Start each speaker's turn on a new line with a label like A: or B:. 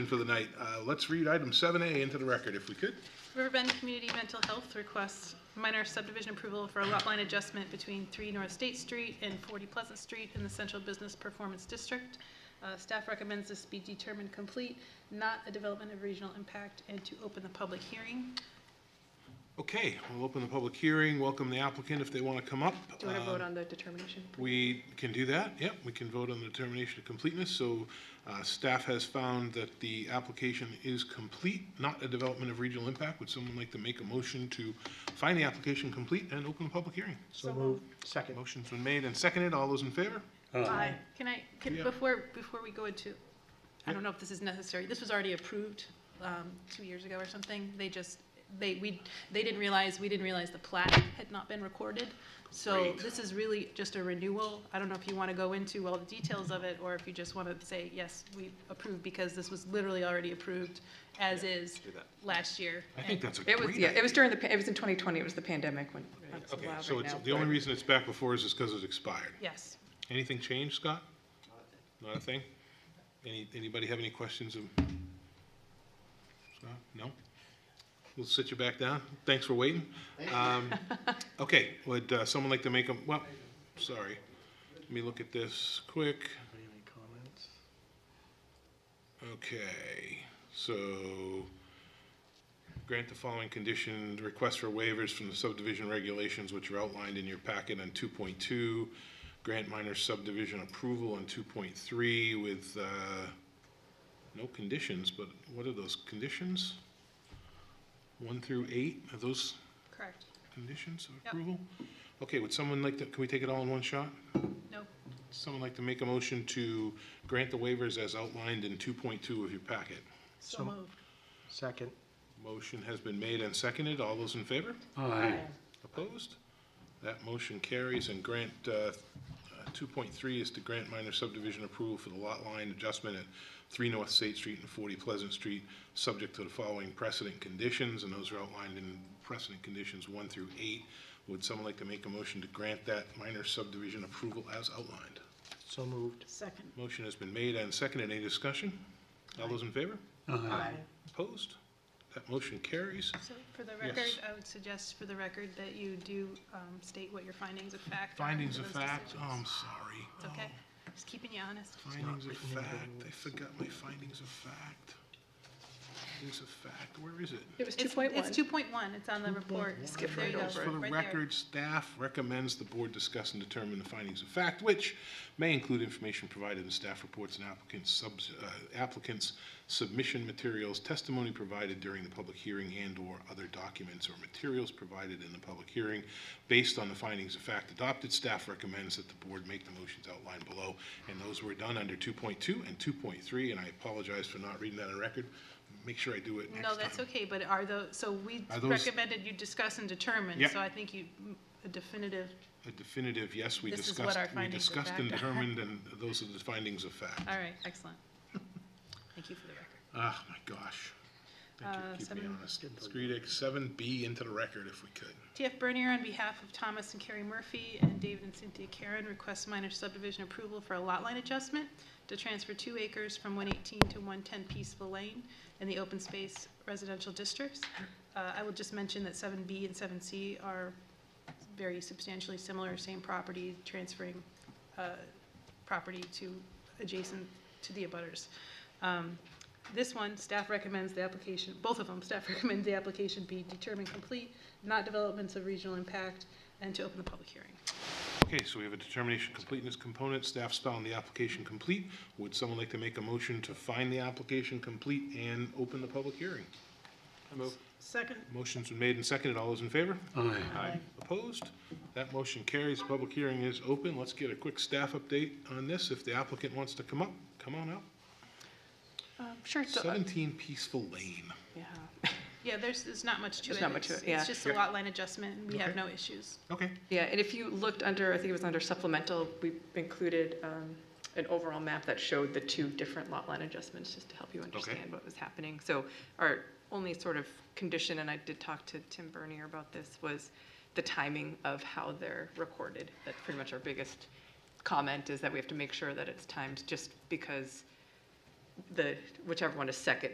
A: for the night. Uh, Let's read item 7A into the record if we could.
B: Riverbend Community Mental Health requests minor subdivision approval for a lot line adjustment between 3 North State Street and 40 Pleasant Street in the Central Business Performance District. Uh, Staff recommends this be determined complete, not a development of regional impact, and to open the public hearing.
A: Okay, we'll open the public hearing, welcome the applicant if they want to come up.
C: Do you want
A: Um,
C: to vote on the determination?
A: We can do that, yep, we can vote on the determination of completeness, so uh, staff has found that the application is complete, not a development of regional impact. Would someone like to make a motion to find the application complete and open the public hearing?
D: So moved. Second.
A: Motion's been made and seconded, all those in favor?
D: Aye.
B: Can I, can-
A: Yeah.
B: before, before we go into, I don't know if this is necessary, this was already approved um, two years ago or something. They just, they, we, they didn't realize, we didn't realize the plat had not been recorded. So
A: Great.
B: this is really just a renewal. I don't know if you want to go into all the details of it, or if you just want to say, yes, we approve, because this was literally already approved as is last year.
A: I think that's a great
C: It
A: idea.
C: was, yeah, it was during the, pa- it was in 2020, it was the pandemic when. that's
A: Okay,
C: allowed
A: so
C: right
A: it's,
C: now,
A: the only
C: but-
A: reason it's back before is just because it's expired.
B: Yes.
A: Anything changed, Scott? Not a thing? Any, anybody have any questions of? Scott, no? We'll sit you back down. Thanks for waiting. Um, okay, would, uh, someone like to make a, well, sorry. Let me look at this quick.
D: Any comments?
A: Okay, so grant the following condition, request for waivers from the subdivision regulations which are outlined in your packet on two point two. Grant minor subdivision approval on two point three with, uh, no conditions, but what are those conditions? One through eight, are those
B: Correct.
A: conditions of
B: Yep.
A: approval? Okay, would someone like to, can we take it all in one shot?
B: No.
A: Someone like to make a motion to grant the waivers as outlined in two point two of your packet?
B: So
D: So-
B: moved.
D: Second.
A: Motion has been made and seconded. All those in favor?
D: Aye.
A: Opposed? That motion carries, and grant, uh, uh, 2.3 is to grant minor subdivision approval for the lot line adjustment at 3 North State Street and 40 Pleasant Street, subject to the following precedent conditions, and those are outlined in precedent conditions 1 through 8. Would someone like to make a motion to grant that minor subdivision approval as outlined?
D: So moved.
B: Second.
A: Motion has been made and seconded. Any discussion? All those in favor?
D: Aye.
A: Opposed? That motion carries.
B: So for the record,
A: Yes.
B: I would suggest for the record that you do um, state what your findings of fact are.
A: Findings
B: for
A: of
B: those
A: fact, um, oh,
B: decisions.
A: I'm sorry.
B: It's okay, just keeping you honest.
A: Findings of fact, I forgot my findings of fact. Findings of fact, where is it?
C: It was
B: It's-
C: 2.1.
B: It's 2.1, it's on the report.
C: Skip
B: There you
C: right
B: go,
C: over
A: For the
B: right there.
A: record, staff recommends the board discuss and determine the findings of fact, which may include information provided in staff reports and applicants' subs, uh, applicants' submission materials, testimony provided during the public hearing and/or other documents or materials provided in the public hearing. Based on the findings of fact adopted, staff recommends that the board make the motions outlined below. And those were done under two point two and two point three, and I apologize for not reading that on record. Make sure I do it next
B: No,
A: time.
B: that's okay, but are those, so we
A: Are those-
B: recommended you discuss and determine,
A: Yeah.
B: so I think you, a definitive,
A: A definitive, yes, we
B: This is what
A: discussed,
B: our
A: we
B: findings of
A: discussed and
B: fact are.
A: determined, and those are the findings of fact.
B: all right, excellent. Thank you for the record.
A: Ah, my gosh. Thank
B: Uh,
A: you, keep me
B: seven-
A: honest. Let's read it, seven B into the record if we could.
B: TF Bernier, on behalf of Thomas and Carrie Murphy and David and Cynthia Karen, requests minor subdivision approval for a lot line adjustment to transfer two acres from 118 to 110 Peaceful Lane in the open space residential districts. Uh, I will just mention that 7B and 7C are very substantially similar, same property, transferring uh, property to adjacent to the abutters. Um, This one, staff recommends the application, both of them, staff recommends the application be determined complete, not developments of regional impact, and to open the public hearing.
A: Okay, so we have a determination completeness component, staff's found the application complete. Would someone like to make a motion to find the application complete and open the public hearing?
B: Second.
A: Motion's been made and seconded, all those in favor?
D: Aye.
A: Opposed? That motion carries, public hearing is open. Let's get a quick staff update on this. If the applicant wants to come up, come on up.
C: Um, Sure. so, uh,
A: 17 Peaceful Lane.
C: Yeah.
B: Yeah, there's, there's not much to it.
C: There's not much to
B: It's-
C: it, yeah.
B: It's just a
A: Yeah.
B: lot line adjustment, and we have
A: Okay.
B: no issues.
A: Okay.
C: Yeah, and if you looked under, I think it was under supplemental, we included um, an overall map that showed the two different lot line adjustments, just to help you understand what was happening. So our only sort of condition, and I did talk to Tim Bernier about this, was the timing of how they're recorded. That's pretty much our biggest comment, is that we have to make sure that it's timed, just because the, whichever one is second,